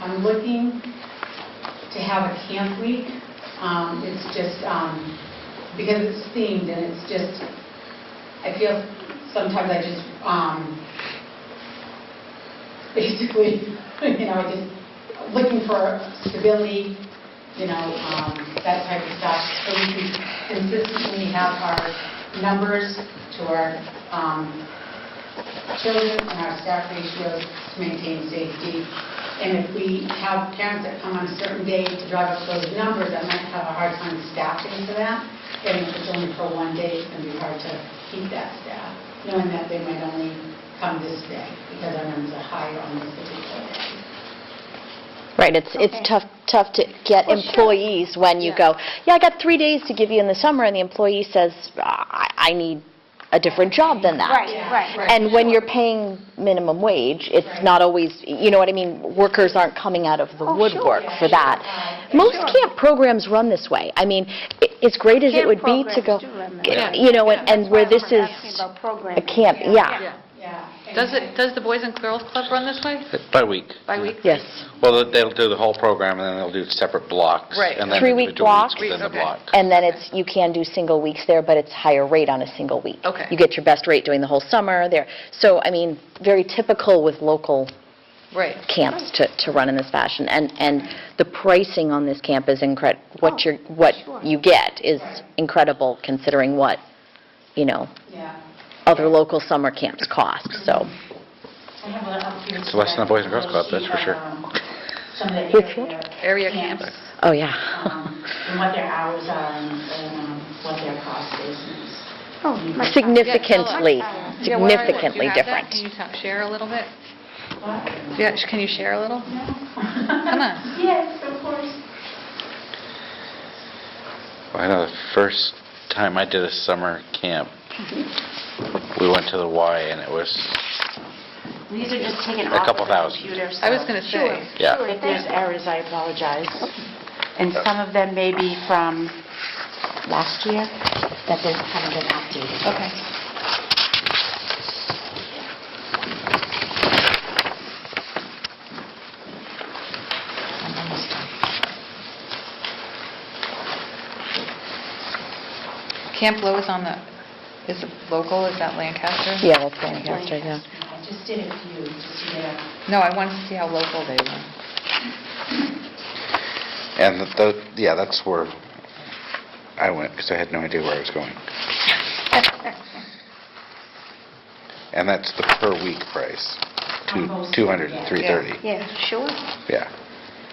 I'm looking to have a camp week. Um, It's just, um, because it's themed and it's just, I feel sometimes I just, um, basically, you know, I just looking for stability, you know, um, that type of stuff. So we can consistently have our numbers to our um, children and our staff ratios to maintain safety. And if we have parents that come on a certain day to drive up those numbers, I might have a hard time staffing for that. And if it's only for one day, it's going to be hard to keep that staff, knowing that they might only come this day because our numbers are higher on this particular day. Right, it's, Okay. it's tough, tough to get Well, sure. employees when you Yeah. go, yeah, I got three days to give you in the summer, and the employee says, I, I need a different job than that. Right, Yeah, right. right. And when you're paying minimum wage, it's Right. not always, you know what I mean, workers aren't coming out of the Oh, sure. woodwork Yeah, for sure. that. Yeah, Most sure. camp programs run this way. I mean, i- as great as it Camp would be to go, programs do run this g- way. you know, and- and That's where why this we're is asking about a programming. camp, yeah, Yeah. Yeah. and- Does it, does the Boys and Girls Club run this way, By week. by week? yes. Well, they'll do the whole program, and then they'll do separate blocks. Right. and then Three-week individual weeks blocks. Within the Okay. block. And then it's, you can do single weeks there, but it's higher rate on a single week. Okay. You get your best rate during the whole summer there. So, I mean, very typical with local Right. camps to, to run in this fashion. And, and the pricing on this camp is incredible. Oh, what you're, what sure. you get is incredible considering what, you know, Yeah. other local summer camps cost, so. I have a lot of It's less than the Boys and Girls Club, that's for sure. um, Some of the Whitfield? area. Area camps. Oh, yeah. um, And what their hours are and and, um, what their cost is. Oh, my- Significantly, Yeah, where is it? significantly different. Do you have that? Mm-hmm. Can you talk- share a little bit? What? Yeah, sh- can you share a little? Come on. Yes, of course. Well, I know the first time I did a summer camp, we went to the Y, and it was, These are just taken A off couple of the thousand. computer. so- I was going to say, yeah. If there's errors, I apologize. And some of them may be from last year, that they haven't been updated. okay. I'm almost done. Camp Low is on the, is it local, is that Lancaster? Yeah, that's Lancaster, yeah. I just did a few, just to get a No, I wanted to see how local they were. And the- the, yeah, that's where I went, because I had no idea where I was going. And that's the per-week price, two- 200 and 330, Yeah, sure. yeah.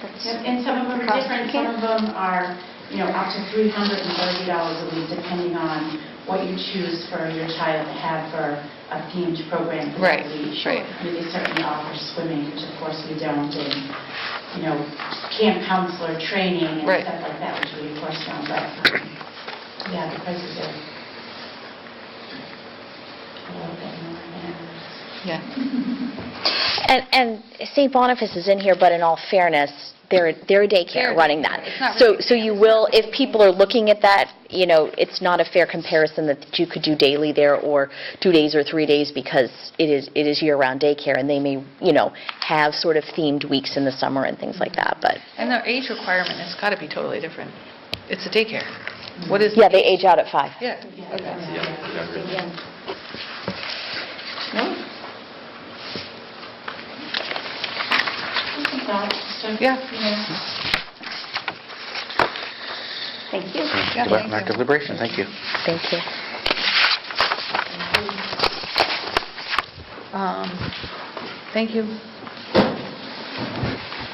And and some of them are Cost different, you some of them are, you know, up to $330 a week, depending on what you choose for your child to have for a themed program for Right, the week. right. I mean, They certainly offer swimming, which of course we don't, and, you know, camp counselor training and Right. stuff like that, which we of course don't, but, um, yeah, the prices are a little bit more than ours. Yeah. And, and St. Boniface is in here, but in all fairness, they're, they're a They're a daycare running that. daycare. It's not So, really a so you will, if people are looking at that, you know, it's not a fair comparison that you could do daily there or two days or three days because it is, it is year-round daycare and they may, you know, have sort of themed weeks in the summer and things like that, but, And their age requirement has got to be totally different. It's a daycare. What is? yeah, they age out at five. Yeah, okay. Yeah. Thank you. Yeah, Left thank and you. active liberation, thank you. Thank you. Um, Thank you.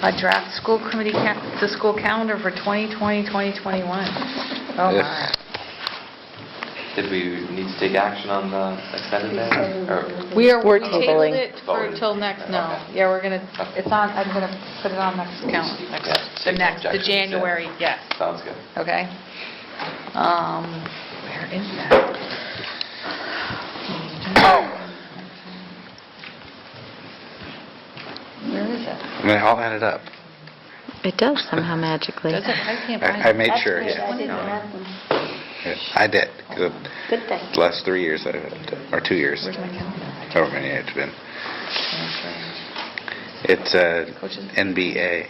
A draft school committee, ca- the school calendar for 2020, 2021. Oh, Yeah. my. Did we need to take action on the extended day? Or- We are, We're we tabled tabling. it for till next, no. Okay. Yeah, we're going to, Okay. it's on, I'm going to put it on next count, Yeah, next- the take next, the objections, yeah. January, yes, Sounds good. okay? Um, Where is that? Where is it? And they all added up. It does somehow magically. Does it, I can't find it. I I made sure, That's yeah. good, I didn't have them. Yeah, I did. 'cause Good thing. The last three years, I- or two years, Where's my calendar? however many it's been. It's uh, Coaches? NBA.